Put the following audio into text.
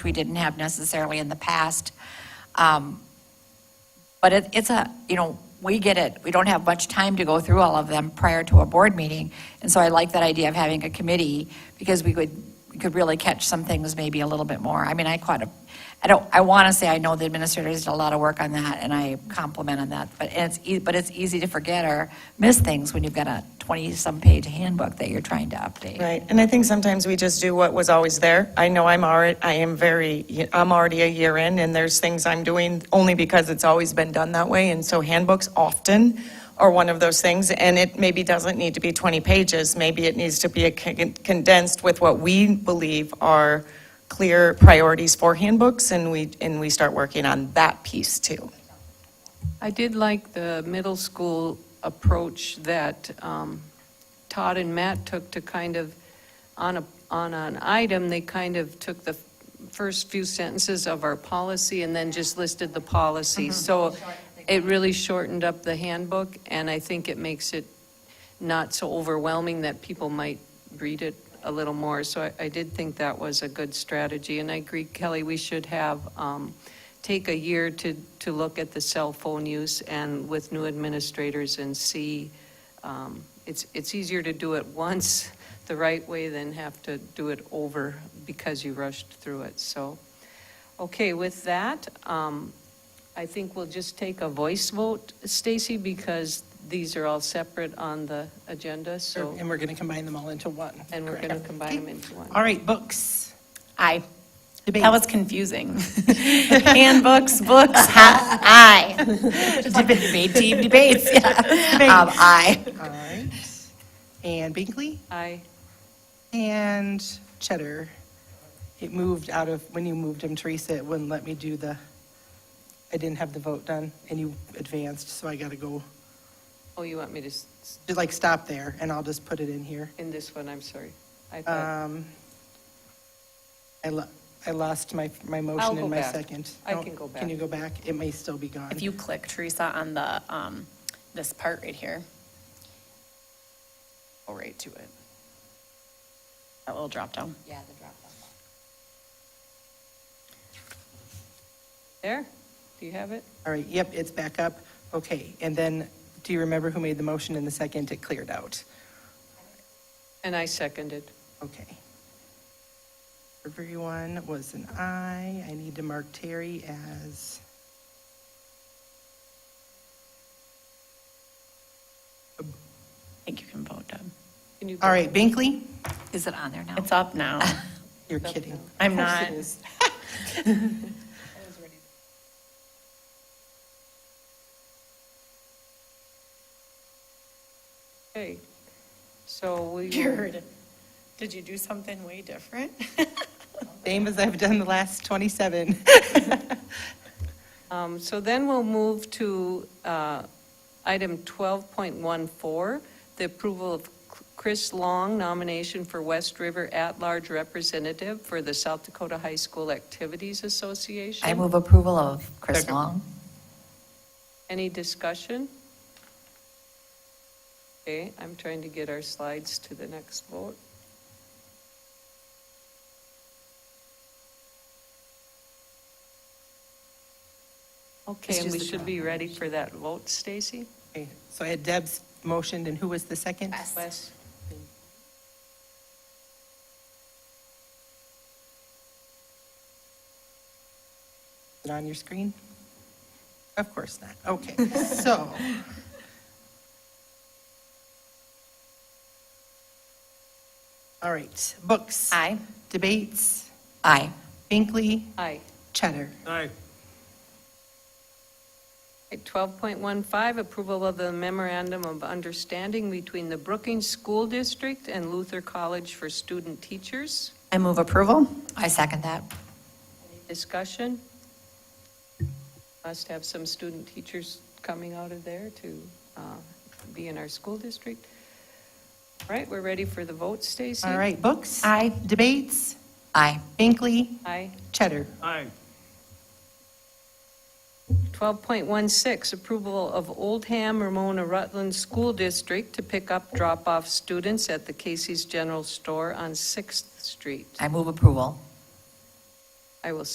we didn't have necessarily in the past. Um, But it, it's a, you know, we get it, we don't have much time to go through all of them prior to a board meeting, and so I like that idea of having a committee, because we could, we could really catch some things maybe a little bit more. I mean, I caught a, I don't, I want to say I know the administrators did a lot of work on that, and I compliment on that, but it's, ea- but it's easy to forget or miss things when you've got a 20-some page handbook that you're trying to update. Right, and I think sometimes we just do what was always there. I know I'm already, I am very, I'm already a year in, and there's things I'm doing only because it's always been done that way, and so handbooks often are one of those things, and it maybe doesn't need to be 20 pages, maybe it needs to be a con- condensed with what we believe are clear priorities for handbooks, and we, and we start working on that piece too. I did like the middle school approach that um, Todd and Matt took to kind of, on a, on an item, they kind of took the first few sentences of our policy and then just listed the policy. So it really shortened up the handbook, and I think it makes it not so overwhelming that people might read it a little more. So I, I did think that was a good strategy, and I agree, Kelly, we should have, um, take a year to, to look at the cell phone use and with new administrators and see, um, it's, it's easier to do it once the right way than have to do it over because you rushed through it, so. Okay, with that, um, I think we'll just take a voice vote, Stacy, because these are all separate on the agenda, so, And we're going to combine them all into one. and we're going to combine them into one. All right, books. Aye. Debate. That was confusing. Handbooks, books, ha- aye. Debate team debates, yeah. Um, aye. All right. And Binkley Aye. and Cheddar. It moved out of, when you moved him, Teresa, it wouldn't let me do the, I didn't have the vote done and you advanced, so I got to go, Oh, you want me to, s- s- just, like stop there and I'll just put it in here. in this one, I'm sorry. I thought, I lo- I lost my, my I'll motion go and my back. second. I No, can go Can back. you go back? It may still be gone. If you click, Teresa, on the, um, this part right here, go right to it. That little drop down. Yeah, the drop down. there, do you have it? All right, yep, it's back up. Okay, and then, do you remember who made the motion in the second? It cleared out. And I seconded. Okay. Everyone was an aye. I need to mark Terry as. I think you can vote, Deb. Can you go All right, Binkley? Is it on there now? It's up now. You're kidding. Of I'm course not. it is. Okay, so we, will- Weird. Did you do something way different? Same as I've done the last 27. um, so then we'll move to uh, item 12.14, the approval of Chris Long nomination for West River at-large representative for the South Dakota High School Activities Association. I move approval of Chris Second. Long. Any discussion? Okay, I'm trying to get our slides to the next vote. Okay, Let's and we use the should be ready for that vote, Stacy? Okay, So I had Deb's motioned, and who was the second? Wes? Is it on your screen? Of course not. Okay, so. All right, books. Aye. Debates. Aye. Binkley. Aye. Cheddar. At 12.15, approval of the memorandum of understanding between the Brookings School District and Luther College for Student Teachers. I move approval. I second that. Discussion? Must have some student teachers coming out of there to uh, be in our school district. All right, we're ready for the vote, Stacy? All right, books. Aye. Debates. Aye. Binkley. Aye. Cheddar. 12.16, approval of Oldham Ramona Rutland School District to pick up drop-off students at the Casey's General Store on Sixth Street. I move approval. I will